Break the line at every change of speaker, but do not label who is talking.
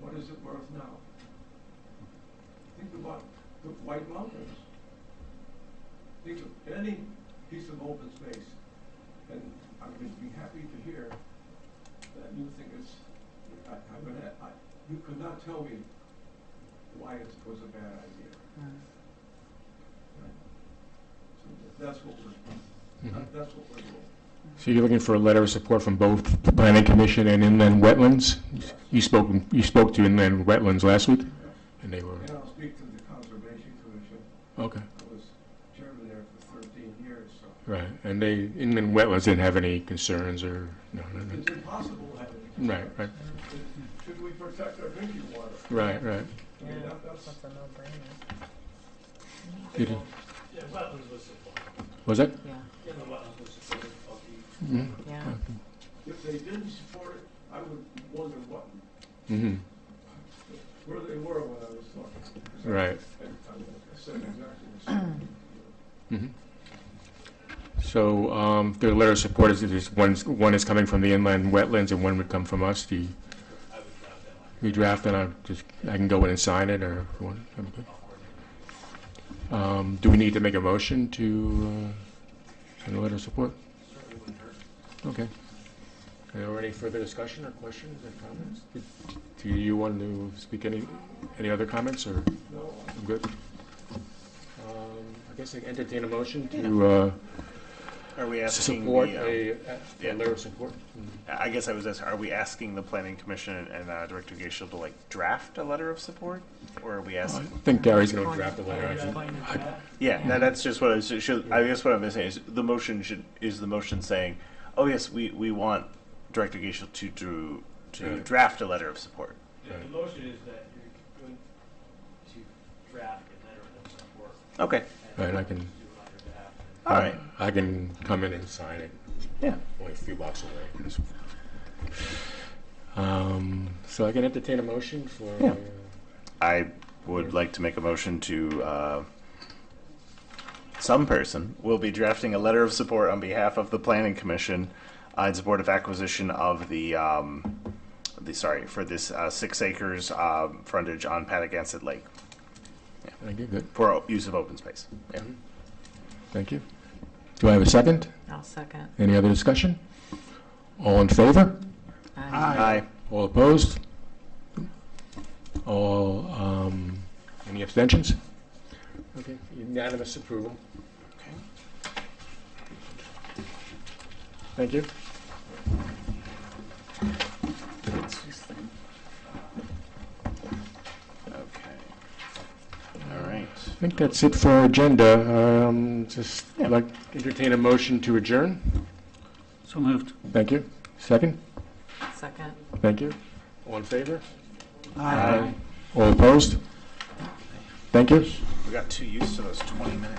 What is it worth now? Think about the White Mountains. Think of any piece of open space. And I would be happy to hear that you think it's, I, I'm gonna, I, you could not tell me why it was a bad idea. So that's what we're,
Mhm.
that's what we're doing.
So you're looking for a letter of support from both the planning commission and inland wetlands?
Yes.
You spoke, you spoke to inland wetlands last week? And they were,
And I'll speak to the Conservation Commission.
okay,
I was chairman there for thirteen years, so
right. And they, inland wetlands didn't have any concerns or, no, no,
it's
no.
impossible to have it.
Right, right,
Should we protect our drinking water?
right, right.
I mean, that- that's.
That's a no-brainer.
It is-
Yeah, wetlands was supported,
Was that?
Yeah,
yeah, the wetlands was supported, of the,
Mm,
yeah.
If they didn't support it, I would wonder what,
mhm,
where they were when I was talking.
Right.
I I said exactly the same.
mhm. So um, their letter of support is, is one's, one is coming from the inland wetlands and one would come from us. Do you,
I would draft that one.
you draft and I just, I can go in and sign it or? if you want, I'm good.
I'll coordinate.
Um, Do we need to make a motion to uh, send a letter of support?
Certainly wouldn't hurt.
Okay. Are there any further discussion or questions or comments? Did- Do you want to speak any, any other comments, or
No,
I'm good? Um, I guess I can entertain a motion to uh,
Are we asking
support
the, um,
a a
yeah.
letter of support.
I guess I was asking, are we asking the planning commission and uh, Director Gaishel to like draft a letter of support? Or are we
I
asking,
think Gary's going to draft a letter, I think.
yeah, no, that's just what I was, should, I guess what I'm saying is, the motion should, is the motion saying, oh yes, we, we want Director Gaishel to do, to
Right.
draft a letter of support.
The, the motion is that you're going to draft a letter of support.
Okay,
and
Right, I can,
Do it on your behalf.
all right,
I can come in and sign it.
yeah.
only a few blocks away. Um, so I can entertain a motion for. uh,
Yeah. I would like to make a motion to, uh, some person will be drafting a letter of support on behalf of the planning commission uh, in support of acquisition of the, um, the, sorry, for this, uh, six acres, uh, frontage on Patagonia Lake
Thank you, good,
for o- use of open space. Yeah.
thank you. Do I have a second?
I'll second.
Any other discussion? All in favor?
Aye.
Aye.
All opposed? All, um, any abstentions? Okay, unanimous approval. Thank you.
Okay. All right.
I think that's it for our agenda. Um, just like entertain a motion to adjourn.
So moved.
Thank you. Second?
Second.
Thank you. All in favor?
Aye.
All opposed? Thank you.
We got too used to those 20 minutes.